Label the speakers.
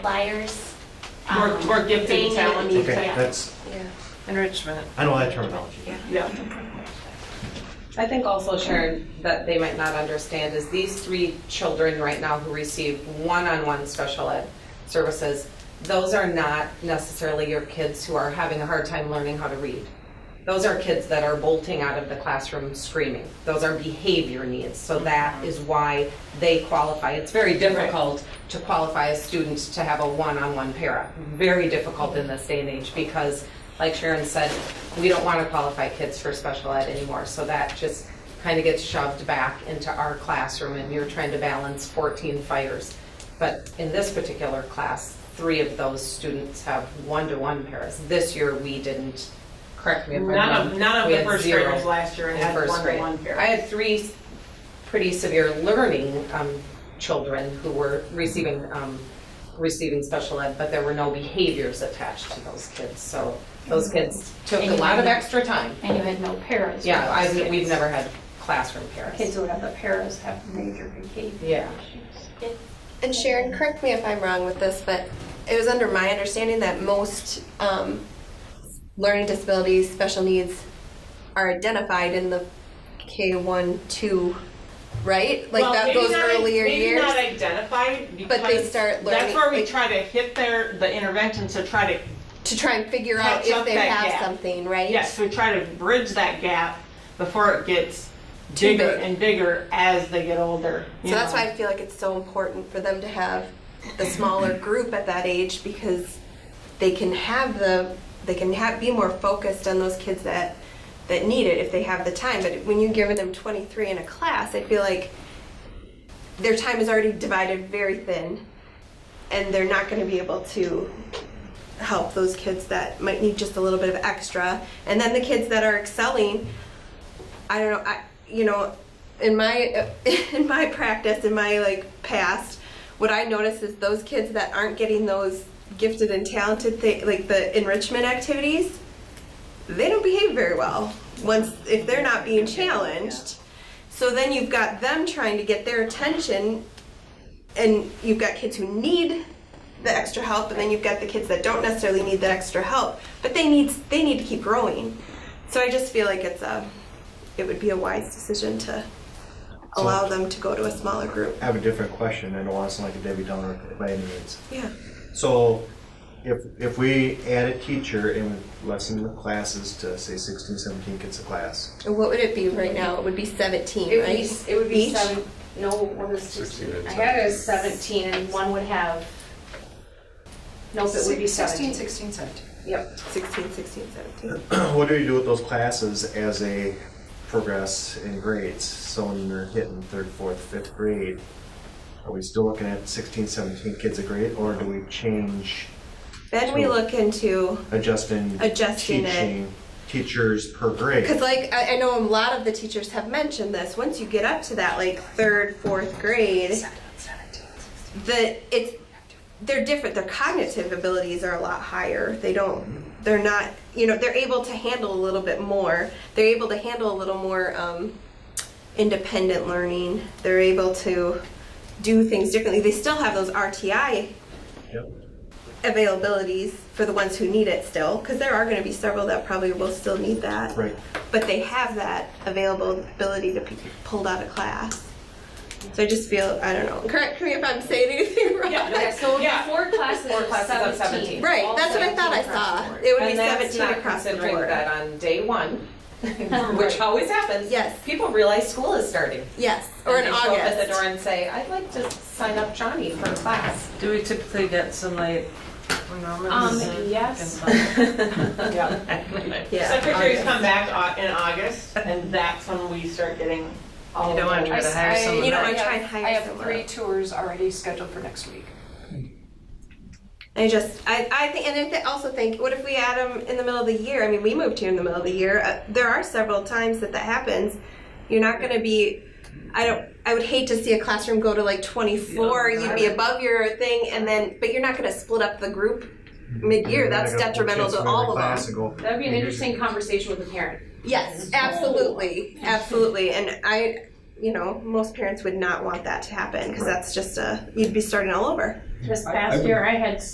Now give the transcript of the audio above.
Speaker 1: Liars.
Speaker 2: More-
Speaker 1: um,
Speaker 2: more gifted
Speaker 1: being-
Speaker 2: talent.
Speaker 1: yeah.
Speaker 2: Okay,
Speaker 1: Yeah.
Speaker 3: that's,
Speaker 4: Yeah, enrichment.
Speaker 3: I know that terminology.
Speaker 2: Yeah.
Speaker 4: I think also, Sharon, that they might not understand is these three children right now who receive one-on-one special ed services, those are not necessarily your kids who are having a hard time learning how to read. Those are kids that are bolting out of the classroom screaming. Those are behavior needs, so that is why they qualify. It's very difficult to qualify a student to have a one-on-one para. Very difficult in this day and age because like Sharon said, we don't want to qualify kids for special ed anymore, so that just kind of gets shoved back into our classroom, and you're trying to balance 14 fires. But in this particular class, three of those students have one-to-one pairs. This year, we didn't, correct me if I'm wrong.
Speaker 2: None of, none of
Speaker 4: We
Speaker 2: the
Speaker 4: had
Speaker 2: first
Speaker 4: zero
Speaker 2: graders last year
Speaker 4: in
Speaker 2: had
Speaker 4: first grade.
Speaker 2: one-to-one pair.
Speaker 4: I had three pretty severe learning um, children who were receiving, um, receiving special ed, but there were no behaviors attached to those kids. So those
Speaker 5: Mm-hmm.
Speaker 4: kids took a lot of extra time.
Speaker 1: And you had no paras.
Speaker 4: Yeah, I, we've never had classroom
Speaker 1: Kids
Speaker 4: parents.
Speaker 1: who have the paras have major
Speaker 4: Yeah.
Speaker 1: behavior issues.
Speaker 6: And Sharon, correct me if I'm wrong with this, but it was under my understanding that most um, learning disabilities, special needs are identified in the K-1, 2, right? Like
Speaker 2: Well,
Speaker 6: that
Speaker 2: maybe
Speaker 6: goes
Speaker 2: not-
Speaker 6: earlier
Speaker 2: Maybe not
Speaker 6: years.
Speaker 2: identified because.
Speaker 6: But they start
Speaker 2: That's
Speaker 6: learning,
Speaker 2: where we
Speaker 6: like-
Speaker 2: try to hit their, the interventions to try to,
Speaker 6: To try and figure out
Speaker 2: Catch up
Speaker 6: if they
Speaker 2: that
Speaker 6: have
Speaker 2: gap.
Speaker 6: something, right?
Speaker 2: yes, we try to bridge that gap before it gets
Speaker 6: Too
Speaker 2: bigger
Speaker 6: big.
Speaker 2: and bigger as they get older.
Speaker 6: So
Speaker 2: you
Speaker 6: that's
Speaker 2: know.
Speaker 6: why I feel like it's so important for them to have the smaller group at that age because they can have the they can have be more focused on those kids that that need it if they have the time. But when you're giving them 23 in a class, I feel like their time is already divided very thin, and they're not going to be able to help those kids that might need just a little bit of extra. And then the kids that are excelling, I don't know, I you know, in my in my practice, in my like past, what I notice is those kids that aren't getting those gifted and talented thing, like the enrichment activities, they don't behave very well once if they're not being challenged. So then you've got them trying to get their attention and you've got kids who need the extra help and then you've got the kids that don't necessarily need that extra help, but they need they need to keep growing. So I just feel like it's a it would be a wise decision to allow them to go to a smaller group.
Speaker 3: I have a different question, I don't want to sound like a Debbie Downer by any means.
Speaker 6: Yeah.
Speaker 3: So if, if we add a teacher and lessen the classes to say 16, 17 kids a class,
Speaker 6: And what would it be right now? It would be 17,
Speaker 5: It would
Speaker 6: right?
Speaker 5: be, s- it would be
Speaker 6: Each?
Speaker 5: seven, no, one was sixteen. I had a seventeen and one would have, nope, it would be seventeen.
Speaker 4: 16, 17.
Speaker 5: Yep.
Speaker 6: 16, 16, 17.
Speaker 3: what do you do with those classes as they progress in grades? So when they're hitting third, fourth, fifth grade, are we still looking at 16, 17 kids a grade, or do we change,
Speaker 6: Then we look into,
Speaker 3: adjusting,
Speaker 6: Adjusting it.
Speaker 3: teaching, teachers per grade?
Speaker 6: because like, I, I know a lot of the teachers have mentioned this, once you get up to that like third, fourth grade, the, it's, they're different, their cognitive abilities are a lot higher, they don't, they're not, you know, they're able to handle a little bit more, they're able to handle a little more, um, independent learning, they're able to do things differently, they still have those RTI
Speaker 3: Yep.
Speaker 6: availabilities for the ones who need it still, because there are going to be several that probably will still need that.
Speaker 3: Right.
Speaker 6: But they have that available ability to be pulled out of class. So I just feel, I don't know, correct me if I'm saying anything wrong.
Speaker 4: Yeah,
Speaker 5: So it would be
Speaker 2: Yeah.
Speaker 5: four classes
Speaker 4: Four
Speaker 5: of
Speaker 4: classes of
Speaker 5: seventeen.
Speaker 4: 17.
Speaker 6: Right,
Speaker 5: All
Speaker 6: that's what I thought I
Speaker 5: 17 across the
Speaker 6: saw.
Speaker 5: board.
Speaker 6: It would be
Speaker 4: And that's
Speaker 6: 17
Speaker 4: not
Speaker 6: across the
Speaker 4: considering
Speaker 6: board.
Speaker 4: that on day one, which always happens.
Speaker 6: Yes.
Speaker 4: People realize school is starting.
Speaker 6: Yes, or
Speaker 4: And
Speaker 6: in
Speaker 4: they show up at the door
Speaker 6: August.
Speaker 4: and say, I'd like to sign up Johnny for class.
Speaker 7: Do we typically get some like,
Speaker 1: Um,
Speaker 7: moments?
Speaker 1: yes,
Speaker 5: Um,
Speaker 2: Yeah.
Speaker 6: Yeah.
Speaker 2: Secretaries come back au- in August and that's when we start getting all
Speaker 7: You
Speaker 2: of
Speaker 7: don't want
Speaker 2: them.
Speaker 7: to try to hire someone.
Speaker 6: You know,
Speaker 7: that-
Speaker 6: I try and hire
Speaker 8: I have
Speaker 6: someone.
Speaker 8: three tours already scheduled for next week.
Speaker 6: I just, I, I think, and I th- also think, what if we add them in the middle of the year? I mean, we moved here in the middle of the year. Uh, there are several times that that happens. You're not going to be, I don't, I would hate to see a classroom go to like 24. You'd be above your thing, and then, but you're not going to split up the group mid year. That's detrimental to all of us.
Speaker 5: That'd be an interesting conversation with a parent.
Speaker 6: Yes, absolutely. Absolutely. And I, you know, most parents would not want that to happen because that's just a, you'd be starting all over.
Speaker 1: This past year, I had